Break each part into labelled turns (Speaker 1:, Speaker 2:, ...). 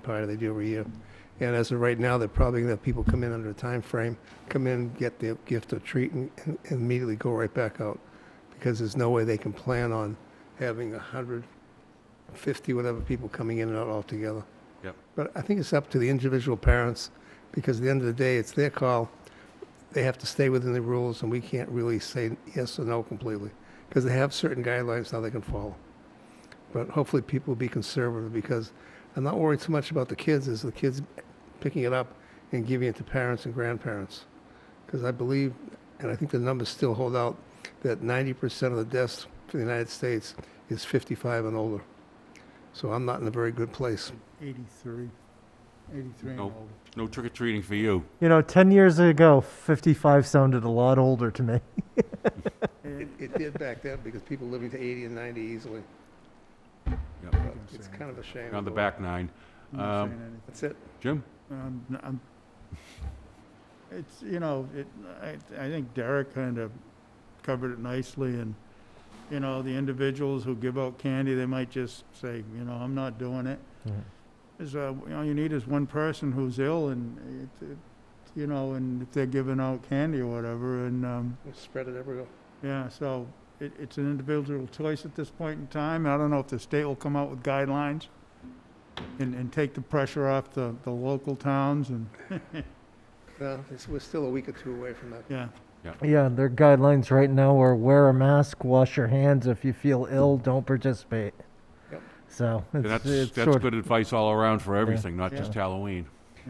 Speaker 1: party they do every year. And as of right now, they're probably gonna have people come in under a time frame, come in, get their gift or treat, and and immediately go right back out. Because there's no way they can plan on having a hundred, fifty, whatever people coming in and out altogether.
Speaker 2: Yep.
Speaker 1: But I think it's up to the individual parents, because at the end of the day, it's their call. They have to stay within the rules, and we can't really say yes or no completely, because they have certain guidelines now they can follow. But hopefully, people will be conservative, because I'm not worried so much about the kids as the kids picking it up and giving it to parents and grandparents. Because I believe, and I think the numbers still hold out, that 90% of the deaths for the United States is 55 and older. So I'm not in a very good place.
Speaker 3: 83, 83 and
Speaker 2: Nope.
Speaker 3: older.
Speaker 2: No trick or treating for you.
Speaker 4: You know, 10 years ago, 55 sounded a lot older to me.
Speaker 3: Eh,
Speaker 1: It, it did back then because people living to 80 and 90 easily.
Speaker 2: Yep.
Speaker 1: But It's kind of a shame.
Speaker 2: On the back nine.
Speaker 3: I'm not
Speaker 2: Um,
Speaker 3: saying anything.
Speaker 1: That's it.
Speaker 2: Jim?
Speaker 3: Um, n- I'm- It's, you know, it, I, I think Derek kind of covered it nicely and, you know, the individuals who give out candy, they might just say, you know, I'm not doing it.
Speaker 2: Mm-hmm.
Speaker 3: Is, uh, you know, you need is one person who's ill and, it- it- you know, and if they're giving out candy or whatever and, um,
Speaker 1: We Spread it everywhere.
Speaker 3: Yeah, so it, it's an individual choice at this point in time. I don't know if the state will come out with guidelines and, and take the pressure off the, the local towns and,
Speaker 1: No, it's, we're still a week or two away from that.
Speaker 3: yeah.
Speaker 4: Yeah, their guidelines right now are wear a mask, wash your hands. If you feel ill, don't participate.
Speaker 1: Yep.
Speaker 4: So
Speaker 2: And
Speaker 4: it's,
Speaker 2: That's,
Speaker 4: it's
Speaker 2: that's
Speaker 4: sort
Speaker 2: good advice all around for everything, not just
Speaker 3: Yeah.
Speaker 2: Halloween.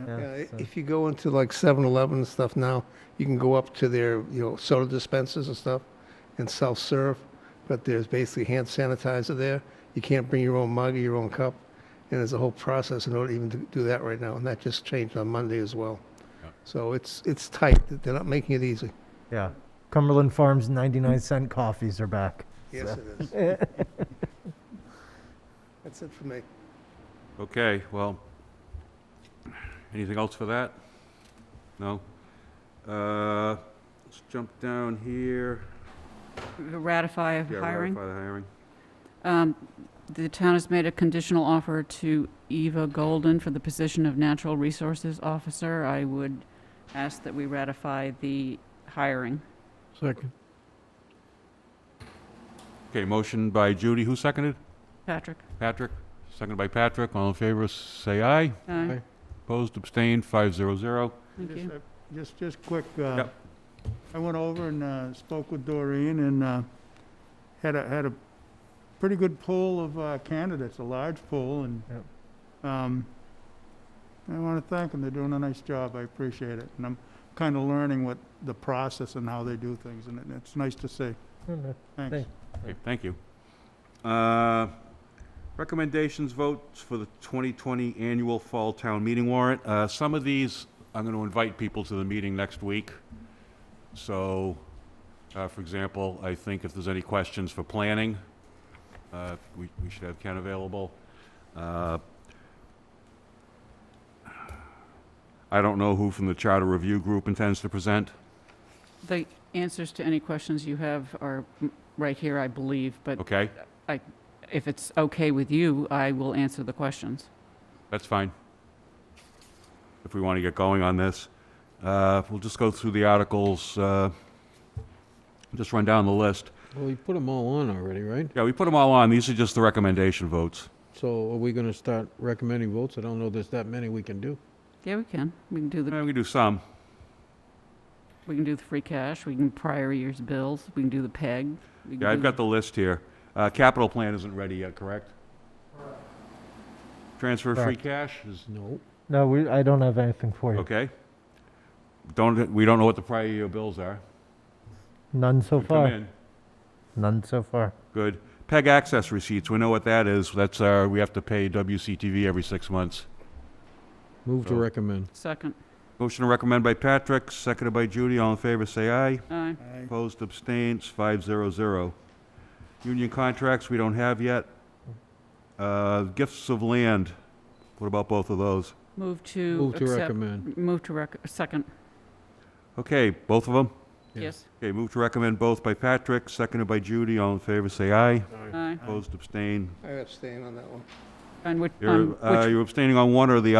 Speaker 4: Yeah,
Speaker 1: Yeah, i-
Speaker 4: so-
Speaker 1: if you go into like 7-Eleven and stuff now, you can go up to their, you know, soda dispensers and stuff and self-serve, but there's basically hand sanitizer there. You can't bring your own mug or your own cup, and there's a whole process in order even to do that right now, and that just changed on Monday as well.
Speaker 2: Yeah.
Speaker 1: So it's, it's tight. They're not making it easy.
Speaker 4: yeah. Cumberland Farms 99 cent coffees are back.
Speaker 1: Yes,
Speaker 4: So-
Speaker 1: it is. That's it for me.
Speaker 2: Okay, well, anything else for that? No? Uh, let's jump down here.
Speaker 5: ratify of
Speaker 2: Yeah,
Speaker 5: hiring.
Speaker 2: ratify the hiring.
Speaker 5: Um, The town has made a conditional offer to Eva Golden for the position of Natural Resources Officer. I would ask that we ratify the hiring.
Speaker 3: Second.
Speaker 2: Okay, motion by Judy. Who seconded?
Speaker 5: Patrick?
Speaker 2: Patrick? Seconded by Patrick. All in favor, say aye.
Speaker 5: Aye.
Speaker 2: Opposed, abstained, five zero zero.
Speaker 5: Thank you.
Speaker 3: Just, just quick, uh,
Speaker 2: Yep.
Speaker 3: I went over and, uh, spoke with Doreen and, uh, had a, had a pretty good pool of, uh, candidates, a large pool and, um, I want to thank them. They're doing a nice job. I appreciate it. And I'm kind of learning what the process and how they do things and it- it's nice to see. Thanks.
Speaker 4: Thank-
Speaker 2: Okay, thank you. Uh, Recommendations votes for the 2020 annual fall town meeting warrant. Uh, Some of these, I'm going to invite people to the meeting next week. So, uh, for example, I think if there's any questions for planning, uh, we we should have Ken available. Uh, I don't know who from the Charter Review Group intends to present.
Speaker 5: The answers to any questions you have are mm, right here, I believe, but
Speaker 2: Okay,
Speaker 5: if it's okay with you, I will answer the questions.
Speaker 2: That's fine. If we want to get going on this, uh, we'll just go through the articles, uh, just run down the list.
Speaker 6: Well, you put them all on already, right?
Speaker 2: Yeah, we put them all on. These are just the recommendation votes.
Speaker 6: So are we gonna start recommending votes? I don't know there's that many we can do.
Speaker 5: Yeah, we can. We can do
Speaker 2: Eh,
Speaker 5: the,
Speaker 2: We can do some.
Speaker 5: we can do the free cash, we can prior year's bills, we can do the PEG. we can
Speaker 2: Yeah, I've
Speaker 5: do-
Speaker 2: got the list here. Uh, Capital plan isn't ready yet, correct? Transfer free cash is,
Speaker 6: No.
Speaker 4: No, we, I don't have anything for you.
Speaker 2: okay. Don't, we don't know what the prior year bills are.
Speaker 4: None so
Speaker 2: Come
Speaker 4: far.
Speaker 2: in.
Speaker 4: None so far.
Speaker 2: Good. PEG access receipts, we know what that is. That's our, we have to pay WCTV every six months.
Speaker 6: Move to
Speaker 2: So-
Speaker 6: recommend.
Speaker 5: Second.
Speaker 2: Motion to recommend by Patrick, seconded by Judy. All in favor, say aye.
Speaker 5: Aye.
Speaker 3: Aye.
Speaker 2: Opposed, abstains, five zero zero. Union contracts, we don't have yet. Uh, Gifts of land, what about both of those?
Speaker 5: Move to.
Speaker 6: Move to
Speaker 5: accept-
Speaker 6: recommend.
Speaker 5: Move to rec, second,
Speaker 2: Okay, both of them?
Speaker 6: Yeah.
Speaker 5: yes.
Speaker 2: Okay, move to recommend both by Patrick, seconded by Judy. All in favor, say aye.
Speaker 5: Aye.
Speaker 2: Opposed, abstain,
Speaker 1: I abstain on that one.
Speaker 5: On which, on
Speaker 2: You're, uh,
Speaker 5: which
Speaker 2: you're abstaining on one or the